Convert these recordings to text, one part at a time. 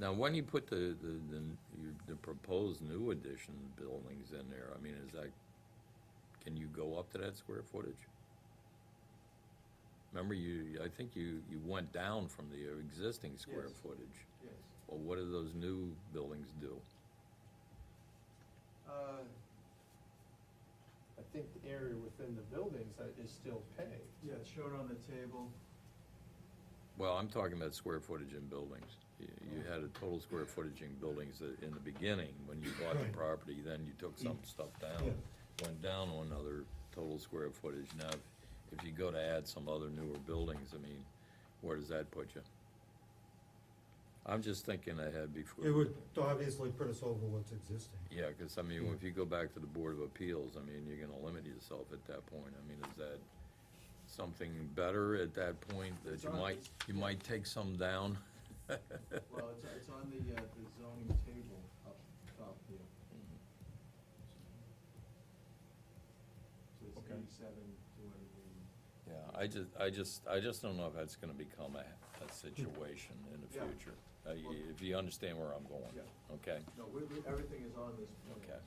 Now, when you put the, the, the, you- the proposed new addition buildings in there, I mean, is that, can you go up to that square footage? Remember you, I think you, you went down from the existing square Yes. footage. Yes. Well, what do those new buildings do? Uh, I think the area within the buildings that is still paved. Yeah, it's shown on the table. Well, I'm talking about square footage in buildings. You, you had a total square footage in buildings that- in the beginning, when you bought the property, then you took some stuff down, went down on another total square footage. Now, if you go to add some other newer buildings, I mean, where does that put you? I'm just thinking ahead before. It would obviously put us over what's existing. Yeah, because I mean, if you go back to the Board of Appeals, I mean, you're gonna limit yourself at that point. I mean, is that something better at that point that It's you on- might, you might take some down? Well, it's, it's on the, uh, the zoning table up top here. So it's Okay. eighty-seven to eighty. Yeah, I just, I just, I just don't know if that's gonna become a, a situation in the Yeah. future. Uh, y- If you understand where I'm going, Yeah. okay? No, we, we, everything is on this plan. Okay.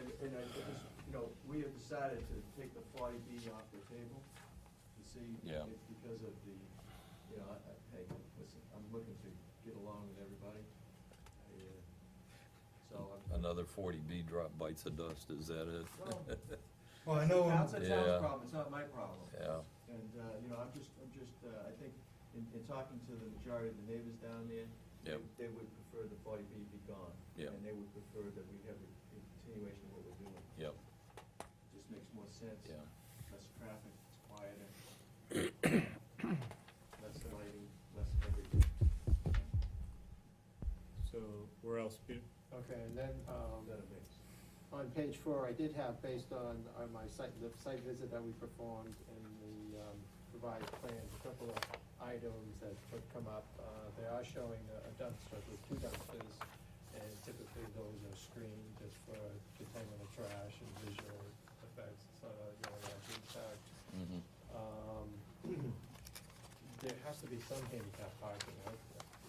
And, and I just, you know, we have decided to take the forty B off the table to see. Yeah. It's because of the, you know, I, I, hey, listen, I'm looking to get along with everybody. I, uh, So I'm. Another forty B drop bites of dust, is that Well, it? Well, I know, That's a Yeah. town's problem, it's not my problem. Yeah, And, uh, you know, I'm just, I'm just, uh, I think, in, in talking to the majority of the neighbors down there, they- Yep. they would prefer the forty B be gone. Yeah. And they would prefer that we have a continuation of what we're doing. yep, Just makes more sense. yeah. Less traffic, it's quieter. Less lighting, less everything. So where else, Peter? Okay, and then, um, That it makes. on page four, I did have, based on, on my site, the site visit that we performed and the, um, revised plans, a couple of items that would come up. Uh, they are showing a a dumpster with two dumpsters, and typically those are screened just for containment of trash and visual effects, so, you know, like impact. Mhm. Um, there has to be some handicap parking, right?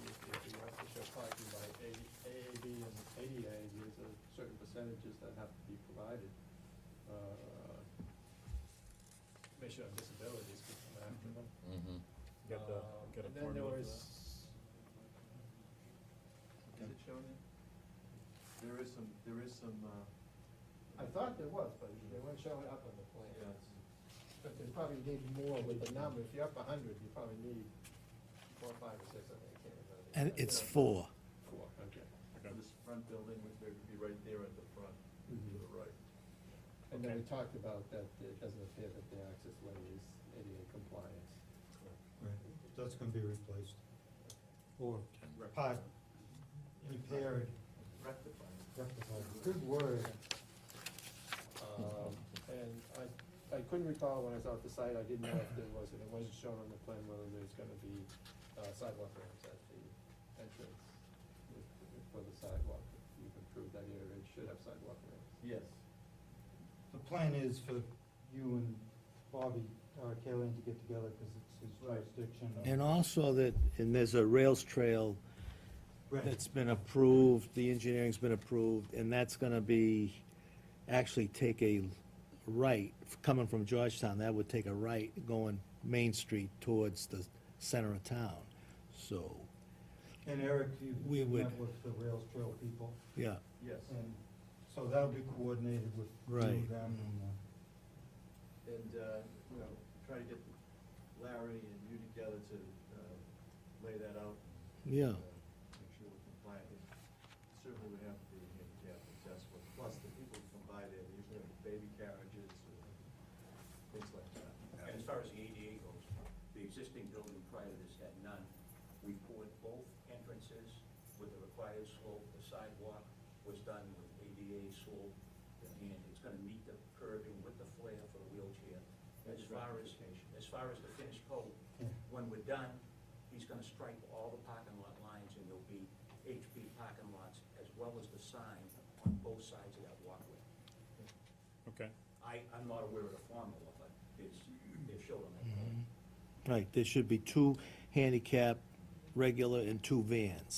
If, if you have to show parking by A- AAB and ADA, there's a certain percentages that have to be provided. Uh, Commission on Disabilities could come after them. Mhm. Got Mm-hmm. the, Um, got a And then there formula for was, that? Is it shown in? There is some, there is some, uh. I thought there was, but they weren't showing up on the plan. Yeah, it's- But they probably need more with the number, if you're up a hundred, you probably need four, five, or six, I think, I can't remember. the And exact it's number. four. Four, okay. Okay. This front building, which would be right there at the front, Mm-hmm. to the right. And then we Okay. talked about that it doesn't appear that the access way is ADA compliance. Right, that's gonna be replaced. Or part repaired, Rectifying. rectified, good word. Um, And I, I couldn't recall when I saw the site, I didn't know if there was, and it wasn't shown on the plan whether there's gonna be uh, sidewalk ramps at the entrance if- if for the sidewalk. If You've improved that area, it should have sidewalk ramps. Yes. The plan is for you and Bobby, uh, Kaylin to get together, cause it's his jurisdiction. And also that, and there's a rails trail Right. that's been approved, the engineering's been approved, and that's gonna be, actually take a right, coming from Georgetown, that would take a right going Main Street towards the center of town. So, And Eric, you We met would- with the Rails Trail people, yeah, Yes, Mm-hmm. and so that'll be coordinated with you, Right. them and, uh, and, uh, you know, try to get Larry and you together to, uh, lay that out. yeah. uh, Make sure we're compliant. Certainly we have to be handicap accessible, plus the people who come by there, usually have baby carriages, uh, things like that. And as far as the ADA goes, the existing building prior to this had none. We poured both entrances with the required slope, the sidewalk was done with ADA slope, and it's gonna meet the curving with the flare for the wheelchair. As far as, as far as the finished coat, when we're done, he's gonna strike all the parking lot lines, and there'll be HB parking lots, as well as the sign on both sides of that walkway. Okay, I, I'm not aware of the formula, but it's, they've showed on that. plan. Right, there should be two handicap regular and two vans.